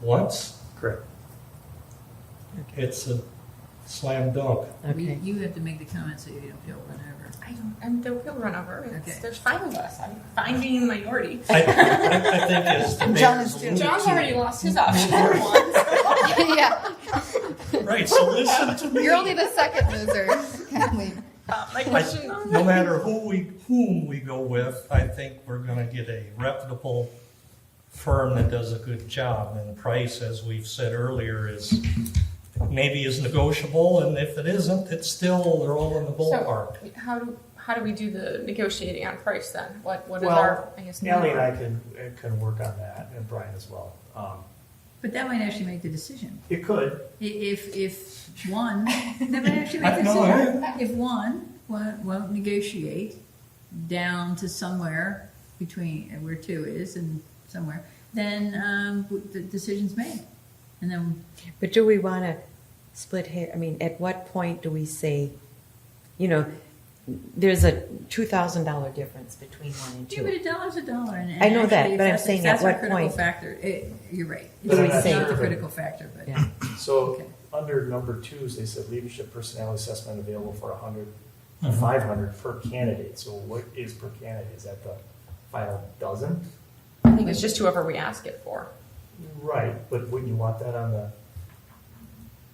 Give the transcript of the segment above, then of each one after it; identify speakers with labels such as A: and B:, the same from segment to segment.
A: once,
B: Correct.
A: it's a slam dunk.
C: Okay.
D: You have to make the comment so you don't feel run over.
E: I don't, I'm, don't feel run over. It's-
D: Okay.
E: There's five of us. I'm fine being the minority.
A: I, I, I think as the
C: John
A: mayor's
C: is
A: alluded
E: John's
A: to-
E: already lost his option once.
F: yeah,
A: Right, so listen to me.
F: you're only the second loser, Kathleen.
E: Uh, my question on
A: No matter who we, whom we go with, I think we're gonna get a reputable firm that does a good job. And price, as we've said earlier, is, maybe is negotiable, and if it isn't, it's still, they're all in the ballpark.
E: So, how do how do we do the negotiating on price then? What what is
B: Well,
E: our I guess
B: Ellie and
E: number?
B: I can, uh, can work on that, and Brian as well. Um,
D: But that might actually make the decision.
B: It could,
D: I- If, if one, that might actually make
A: I
D: the
A: know,
D: decision. If one won't, won't negotiate down to somewhere between where two is and somewhere, then um, w- the decision's made. And then,
C: But do we want to split hair? I mean, at what point do we say, you know, there's a two thousand dollar difference between one and
D: yeah, but
C: two?
D: a dollar's a dollar. And, and
C: I know that,
D: actually,
C: but I'm
D: that's-
C: saying
D: that's
C: at
D: our
C: what
D: critical
C: point-
D: factor. It, you're right.
B: But
C: I'm
D: It's
C: saying-
D: not the critical factor, but
C: Yeah.
B: so
D: Okay.
B: under number twos, they said leadership personality assessment available for a hundred,
A: Mhm.
B: five hundred per candidate. So what is per candidate? Is that the final dozen?
E: I think it's just whoever we ask it for.
B: Right, but wouldn't you want that on the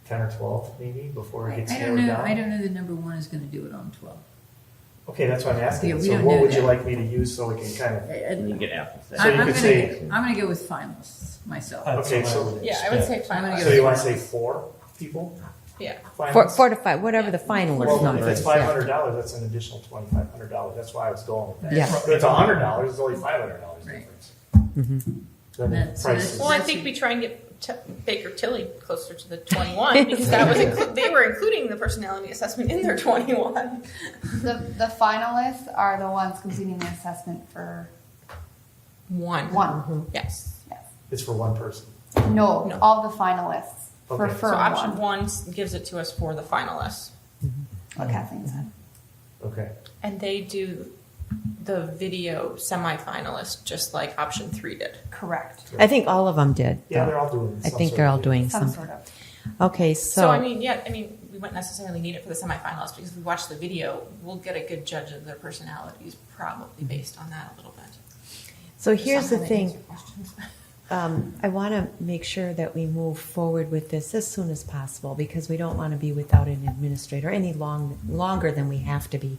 B: ten or twelve maybe before it
D: I,
B: gets
D: I don't
B: narrowed
D: know.
B: down?
D: I don't know that number one is going to do it on 12.
B: Okay, that's what I'm
D: Yeah,
B: asking.
D: we
B: So
D: don't
B: what
D: know
B: would you
D: that.
B: like me to use so we can kind of,
D: I- I-
G: You get apples.
B: So you
D: I'm, I'm
B: could
D: gonna
B: say- Uh,
D: go, I'm gonna go with finalists myself.
A: That's
B: Okay,
A: what
B: so-
A: would
E: Yeah, I would
A: expect.
E: say
D: I'm gonna
E: finalists.
B: so you want to say four people?
E: Yeah.
C: Four,
B: Finalists?
C: four to five, whatever the
B: Well,
C: finalist
B: if
C: number
B: it's
C: is.
B: five
C: yeah.
B: hundred dollars, that's an additional twenty-five hundred dollars. That's why I was going with that.
C: Yeah.
B: But if it's hundred dollars, it's only five hundred dollars
D: Right.
B: difference.
C: Mhm.
B: Then the
D: That's-
B: price is-
E: Well, I think we try and get t- Baker Tilly closer to the 21 because that was inclu- they were including the personality assessment in their 21.
F: The, the finalists are the ones completing the assessment for
E: One.
F: one.
E: Yes.
F: Yes.
B: It's for one person.
F: Mm-hmm. No,
E: No.
F: all the finalists for
B: Okay.
F: for
E: so option one
F: one.
E: s- gives it to us for the finalists,
F: What Kathleen said.
B: Okay.
E: and they do the video semifinalist just like option three did.
F: Correct.
C: I think all of them did.
B: Yeah,
C: though.
B: they're all doing.
C: I
B: some
C: think
B: sort
C: they're
B: of
C: all
B: thing.
C: doing
F: Some
C: some.
F: sort of.
C: Okay,
E: So, I
C: so
E: mean, yeah, I mean, we wouldn't necessarily need it for the semifinals because if we watch the video, we'll get a good judge of their personalities, probably based on that a little bit.
C: so
E: Does
C: here's
E: that
C: the
E: kinda answer
C: thing.
E: your questions?
C: Um, I want to make sure that we move forward with this as soon as possible because we don't want to be without an administrator any long longer than we have to be.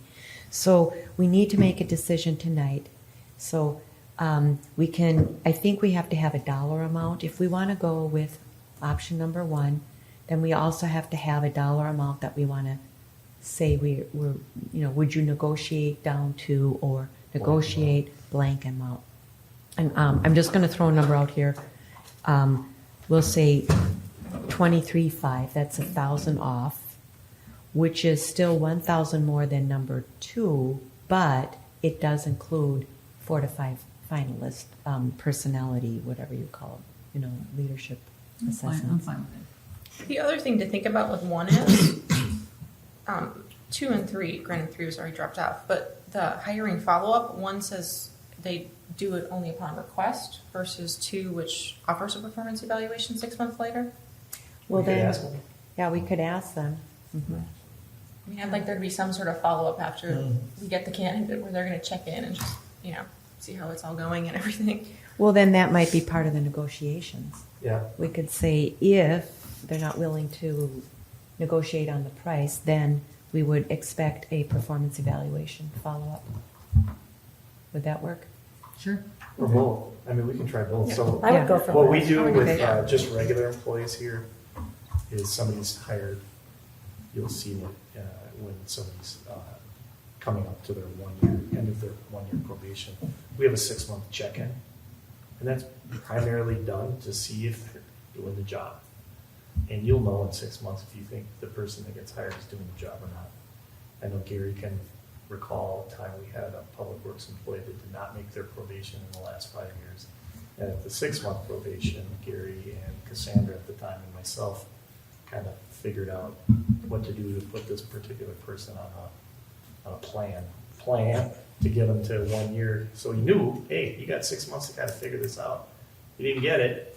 C: So we need to make a decision tonight. So um, we can. I think we have to have a dollar amount if we want to go with option number one. Then we also have to have a dollar amount that we want to say we, we're. You know, would you negotiate down to or negotiate blank amount? And um, I'm just going to throw a number out here. Um, we'll say twenty-three five. That's a thousand off, which is still one thousand more than number two, but it does include four to five finalist um, personality, whatever you call it, you know, leadership
D: I'm fine, I'm
C: assessments.
D: fine with it.
E: The other thing to think about with one is um, two and three. Granted, three was already dropped off, but the hiring follow up one says they do it only upon request versus two, which offers a performance evaluation six months later.
C: Well,
B: We could
C: then,
B: ask them.
C: yeah, we could ask them. Mhm.
E: I mean, I'd like there to be some sort of follow up after
A: Mm.
E: we get the candidate where they're going to check in and just, you know, see how it's all going and everything.
C: Well, then that might be part of the negotiations.
B: Yeah.
C: We could say if they're not willing to negotiate on the price, then we would expect a performance evaluation follow-up. Would that work?
D: Sure.
B: Or both. I mean, we can try both. So
C: I would go for
B: what we do with
E: Yeah.
B: uh, just regular employees here is somebody's hired. You'll see it uh, when somebody's uh, coming up to their one year end of their one year probation. We have a six month check in, and that's primarily done to see if they're doing the job. And you'll know in six months if you think the person that gets hired is doing the job or not. I know Gary can recall a time we had a public works employee that did not make their probation in the last five years. And at the six month probation, Gary and Cassandra at the time and myself kind of figured out what to do to put this particular person on a, on a plan, plan to get them to one year. So he knew, hey, you got six months to kind of figure this out. You didn't get it,